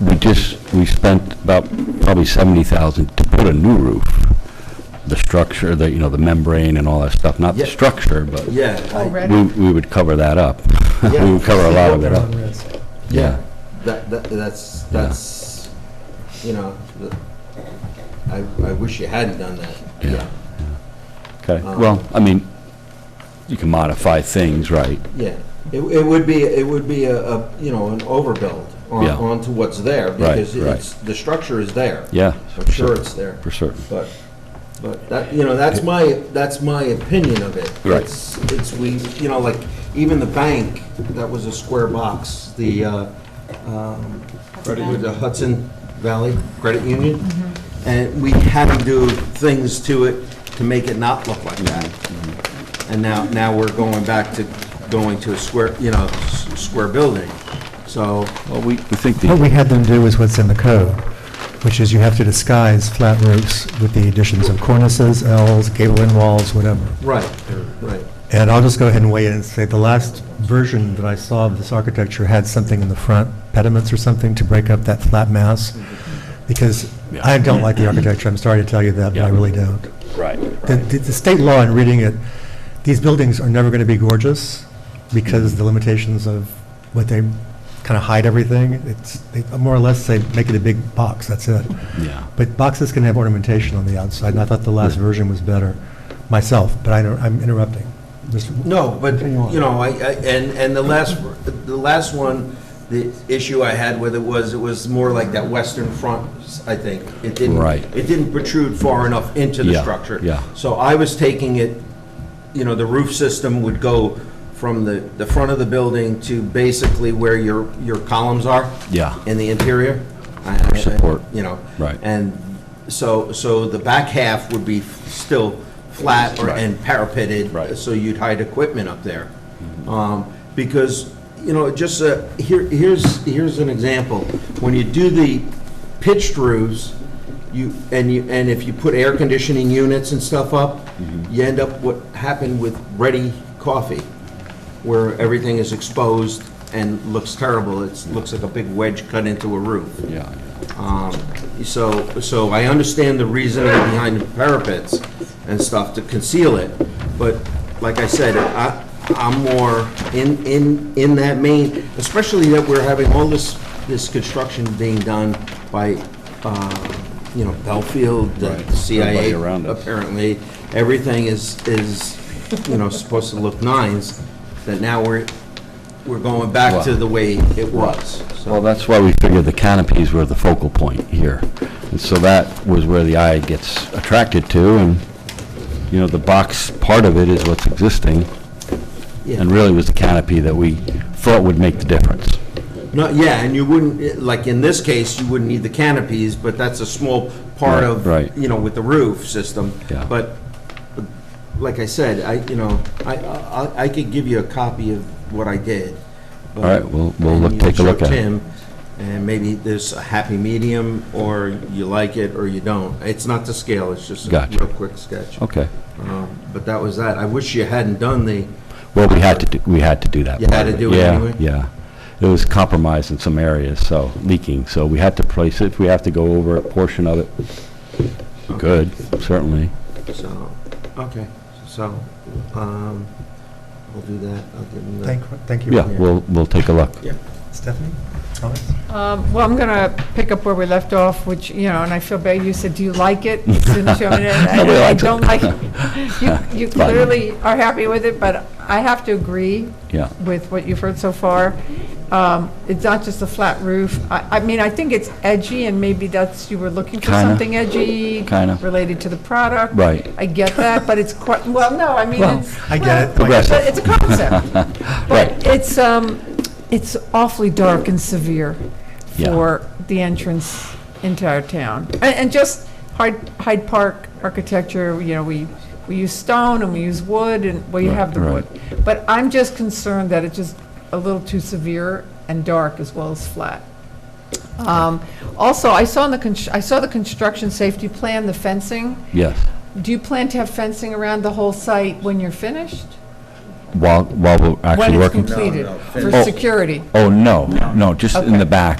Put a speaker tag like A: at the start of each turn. A: we just, we spent about probably 70,000 to put a new roof, the structure, the, you know, the membrane and all that stuff, not the
B: Yeah.
A: structure, but
B: Yeah. I-
C: Already?
A: we we would cover that up. We
B: Yeah.
A: would cover a lot of it up, yeah.
B: That, that, that's, that's, you know, the- I, I wish you hadn't done that.
A: Yeah.
B: Yeah,
A: Okay,
B: Um,
A: well, I mean, you can modify things, right?
B: yeah. It, it would be, it would be a, a, you know, an overbuild on,
A: Yeah.
B: onto what's there.
A: Right,
B: Because
A: right.
B: it's, the structure is there.
A: Yeah.
B: I'm sure it's there.
A: For certain.
B: But, but that, you know, that's my, that's my opinion of it.
A: Right.
B: It's, it's we, you know, like, even the bank, that was a square box, the, uh, um, with the Hudson Valley Credit Union. And we had to do things to it to make it not look like that. And now, now we're going back to going to a square, you know, s- square building. So,
A: Well, we, we think
D: What
A: the,
D: we had them do is what's in the code, which is you have to disguise flat roofs with the additions of cornices, Ls, gable end walls, whatever.
B: right, right.
D: And I'll just go ahead and weigh in and say, the last version that I saw of this architecture had something in the front, pediments or something, to break up that flat mass, because I don't like the architecture, I'm sorry to tell you that, but I
A: Yeah.
D: really don't.
B: Oh.
A: right,
D: The- The the state law, in reading it, these buildings are never going to be gorgeous because the limitations of what they kind of hide everything. It's, they more or less say, make it a big box, that's it.
A: yeah.
D: But boxes can have ornamentation on the outside, and I thought the last version was better, myself, but I don't, I'm interrupting. Just-
B: No, but,
D: Continue on.
B: you know, I, I- and, and the last, the last one, the issue I had with it was, it was more like that western front, I think. It didn't,
A: Right.
B: it didn't protrude far enough into the
A: Yeah,
B: structure.
A: yeah.
B: So I was taking it, you know, the roof system would go from the, the front of the building to basically where your, your columns are.
A: Yeah.
B: In the interior. I- I- I-
A: Support.
B: You know.
A: Right.
B: And so, so the back half would be still flat or,
A: Right.
B: and parapeted.
A: Right. Mm-hmm.
B: So you'd hide equipment up there. Um, Because, you know, just, uh, here, here's, here's an example. When you do the pitched roofs, you, and you, and if you put air conditioning units and stuff up,
A: Mm-hmm.
B: you end up what happened with ready coffee, where everything is exposed and looks terrible. It looks like a big wedge cut into a roof.
A: Yeah,
B: Um, So, so I understand the reasoning behind the parapets and stuff to conceal it, but like I said, I, I'm more in, in, in that main, especially that we're having all this, this construction being done by, uh, you know, Belfield, the
A: Right,
B: CIA,
A: everybody around us.
B: apparently. Everything is, is, you know, supposed to look nines, that now we're, we're going back to the way it was. so.
A: Well, that's why we figured the canopies were the focal point here. And so that was where the eye gets attracted to, and, you know, the box part of it is what's existing,
B: Yeah.
A: and really was the canopy that we thought would make the difference.
B: No, yeah, and you wouldn't, like in this case, you wouldn't need the canopies, but that's a small part
A: Right,
B: of,
A: right.
B: you know, with the roof system.
A: Yeah.
B: But, but like I said, I, you know, I, I, I could give you a copy of what I did. All
A: right, we'll- we'll look- take a look at it.
B: And maybe there's a happy medium, or you like it or you don't. It's not to scale, it's just a
A: Gotcha.
B: real quick sketch.
A: Okay.
B: Um, But that was that. I wish you hadn't done the,
A: Well, we had to, do. we had to do that.
B: You had
A: part
B: to
A: of
B: do it anyway?
A: Yeah, yeah. It was compromised in some areas, so, leaking, so we had to place it. If we have to go over a portion of it, we could, certainly.
B: so, okay, so, um, we'll do that. I'll give them the.
D: Thank, thank you.
A: Yeah, we'll, we'll take a look.
B: Yeah.
D: Stephanie, comments?
C: Um, Well, I'm going to pick up where we left off, which, you know, and I feel bad, you said, do you like it? You didn't show me that. I-
A: Nobody
C: I
A: likes it.
C: don't like it. You- You
A: Fine.
C: clearly are happy with it, but I have to agree
A: Yeah.
C: with what you've heard so far. Um, It's not just a flat roof. I I mean, I think it's edgy, and maybe that's, you were looking for
A: Kinda.
C: something edgy.
A: Kinda.
C: Related to the product.
A: Right.
C: I get that, but it's quite, well, no, I mean,
A: Well,
C: it's.
D: I get
C: well,
D: it.
A: Progressive.
C: but It's a concept.
A: Right.
C: But it's, um, it's awfully dark and severe
A: Yeah.
C: for the entrance into our town. And, and just Hyde, Hyde Park architecture, you know, we, we use stone and we use wood and, well, you
A: Right,
C: have the
A: right.
C: wood. But I'm just concerned that it's just a little too severe and dark as well as flat. Um, also, I saw in the, cons- I saw the construction safety plan, the fencing.
A: Yes.
C: Do you plan to have fencing around the whole site when you're finished?
A: While, while we're
C: When
A: actually
C: it's
A: working?
C: completed,
B: no,
C: for
A: Oh.
C: security?
A: Oh, no, no, just in the back.